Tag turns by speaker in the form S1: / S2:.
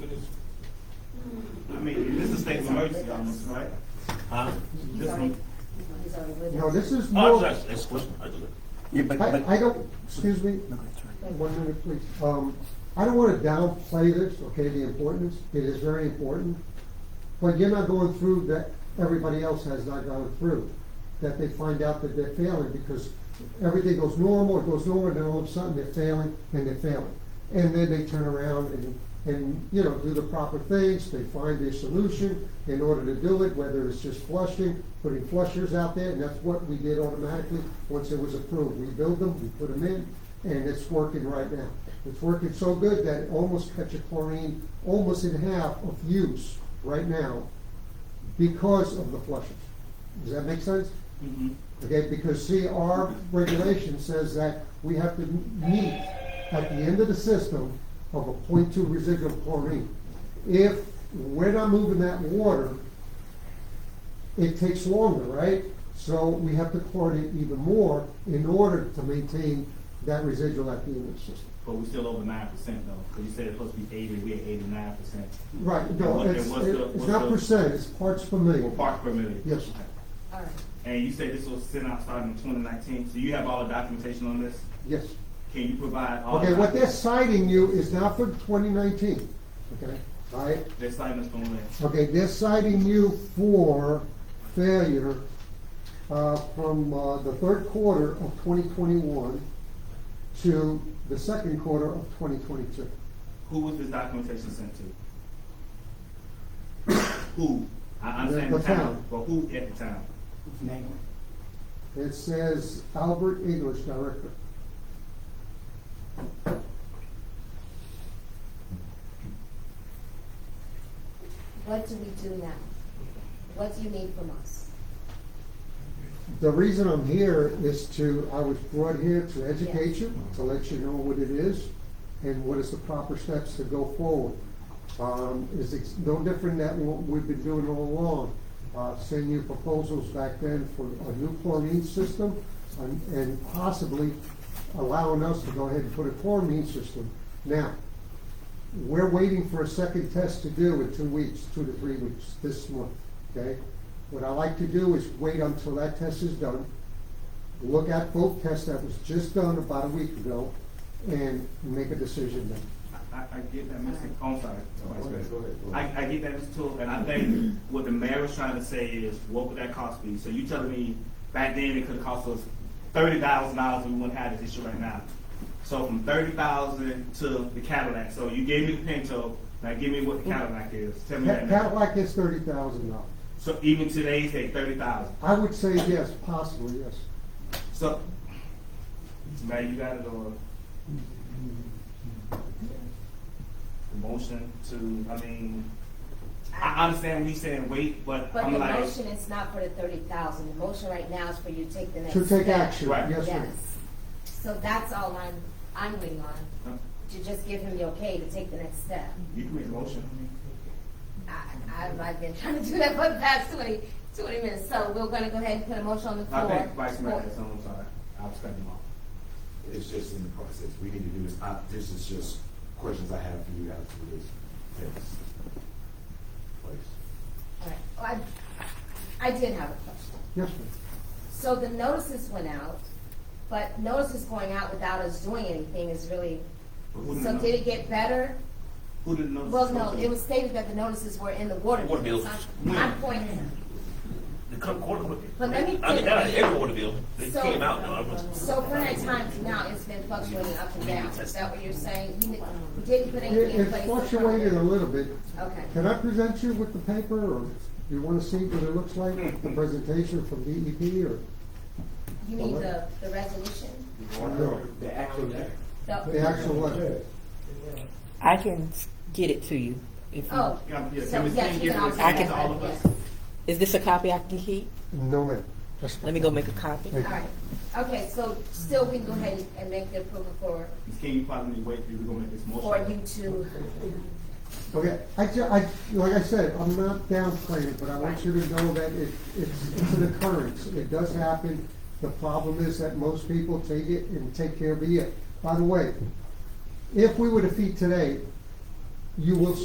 S1: notices on this, right?
S2: Huh?
S1: This one?
S3: He's already with
S4: No,
S3: us.
S4: this is
S2: Oh,
S4: more,
S2: that's, that's question. I do it.
S5: Yeah, but,
S4: I, I
S5: but,
S4: don't, excuse me, one minute, please. Um, I don't wanna downplay this, okay, the importance, it is very important. But you're not going through that everybody else has not gone through, that they find out that they're failing because everything goes normal, it goes normal, then all of a sudden they're failing and they're failing. And then they turn around and, and, you know, do the proper things, they find their solution in order to do it, whether it's just flushing, putting flushers out there, and that's what we did automatically once it was approved. We build them, we put them in, and it's working right now. It's working so good that it almost cuts your chlorine almost in half of use right now because of the flushes. Does that make sense?
S1: Mm-hmm.
S2: Mhm.
S4: Okay, because see, our regulation says that we have to meet at the end of the system of a 0.2 residual chlorine. If we're not moving that water, it takes longer, right? So we have to chlorinate even more in order to maintain that residual at the end of the system.
S1: But we're still over nine percent though, because you said it's supposed to be eighty, we're at eighty-nine percent.
S4: Right,
S1: And
S4: no,
S1: what- and
S4: it's,
S1: what's the-
S4: it's
S1: what's
S4: not
S1: the-
S4: percent, it's parts per
S1: Or
S4: million.
S1: parts per million?
S4: Yes.
S1: Okay.
S3: All right.
S1: And you said this was sent out starting in twenty nineteen, so you have all the documentation on this?
S4: Yes.
S1: Can you provide all?
S4: Okay,
S1: the
S4: what they're
S1: documentation?
S4: citing you is not for twenty nineteen, okay? All right,
S1: They're citing us from when?
S4: okay, they're citing you for failure, uh, from, uh, the third quarter of twenty twenty-one to the second quarter of twenty twenty-two.
S1: Who was this documentation sent to? Who? I understand
S4: The-
S1: the
S4: the
S1: town,
S4: town.
S1: but who at the town?
S4: It says Albert English, Director.
S3: What do we do now? What do you need from us?
S4: The reason I'm here is to, I was brought here to educate you, to let you know what it is and what is the proper steps to go forward. Um, is it's no different than what we've been doing all along. Uh, send you proposals back then for a new chlorine system and, and possibly allowing us to go ahead and put a chlorine system. Now, we're waiting for a second test to do in two weeks, two to three weeks, this month, okay? What I like to do is wait until that test is done, look at both tests that was just done about a week ago, and make a decision then.
S1: I, I get that, Mr. Oh, I'm sorry. Vice
S5: ahead, go
S1: President.
S5: ahead, go ahead.
S1: I, I get that, Mr. Tool, and I think what the mayor was trying to say is, what would that cost be? So you telling me back then it could have cost us thirty thousand dollars and we wouldn't have this issue right now. So from thirty thousand to the Cadillac, so you gave me the Pinto, now give me what the Cadillac is, tell me
S4: Ca-
S1: that now.
S4: Cadillac is thirty thousand dollars.
S1: So even today, say thirty thousand,
S4: I would say yes, possibly yes.
S1: so, now you got it uh, on. The motion to, I mean, I understand when you saying wait, but
S3: But
S1: I'm
S3: the
S1: like,
S3: motion is not for the thirty thousand. The motion right now is for you to take the next
S4: To
S3: step.
S4: take action,
S1: Right.
S4: yes, ma'am.
S3: Yes. So that's all I'm, I'm waiting on,
S1: huh?
S3: to just give him the okay to take the next step.
S1: you can make a motion.
S3: I, I, I've been trying to do that for the past twenty, twenty minutes, so we're gonna go ahead and put a motion on the
S1: I
S3: floor.
S1: think Vice Mayor
S3: For-
S1: has something, I'm sorry, I was cutting him off.
S5: it's just in the process, we need to do this, I, this is just questions I have for you guys for this, this place.
S3: All right. Well, I, I did have a question.
S4: Yes, ma'am.
S3: So the notices went out, but notices going out without us doing anything is really,
S1: But who didn't
S3: so
S1: know-
S3: did it get better?
S1: Who didn't know?
S3: Well, no, it was stated that the notices were in the water.
S2: Water
S3: bills.
S2: bills.
S3: My my point is,
S2: They come quarter with it.
S3: But let me
S2: I
S3: think-
S2: think out of every water bill, they
S3: So-
S2: came out, no, I was.
S3: so from that time to now, it's been fluctuating up and down. Is that what you're saying? You didn't- you didn't put
S4: It
S3: anything in
S4: it
S3: place? to
S4: fluctuated a
S3: cover it?
S4: little bit.
S3: Okay.
S4: Can I present you with the paper, or you wanna see what it looks like, the presentation from DEP, or?
S3: You mean the, the resolution?
S4: No,
S5: The actual
S4: The actual letter.
S6: I can s- get it to you. If you
S3: Oh.
S1: Yeah, yeah,
S3: so
S1: can we
S3: yes,
S1: send
S3: you
S1: it
S3: can
S1: to
S3: also have
S1: all of
S3: that,
S1: us?
S3: yes.
S6: Is this a copy I can keep?
S4: No, ma'am. That's fine.
S6: Let me go make a copy.
S4: Thank
S3: All right. Okay, so still we can go ahead and make the approval for,
S1: Ms. King, you probably need to wait, till we're gonna make this motion.
S3: for you to,
S4: Okay, I, ju- I, like I said, I'm not downplaying it, but I want you to know that it, it's, it's an occurrence, it does happen. The problem is that most people take it and take care of it. By the way, if we were to feed today, you will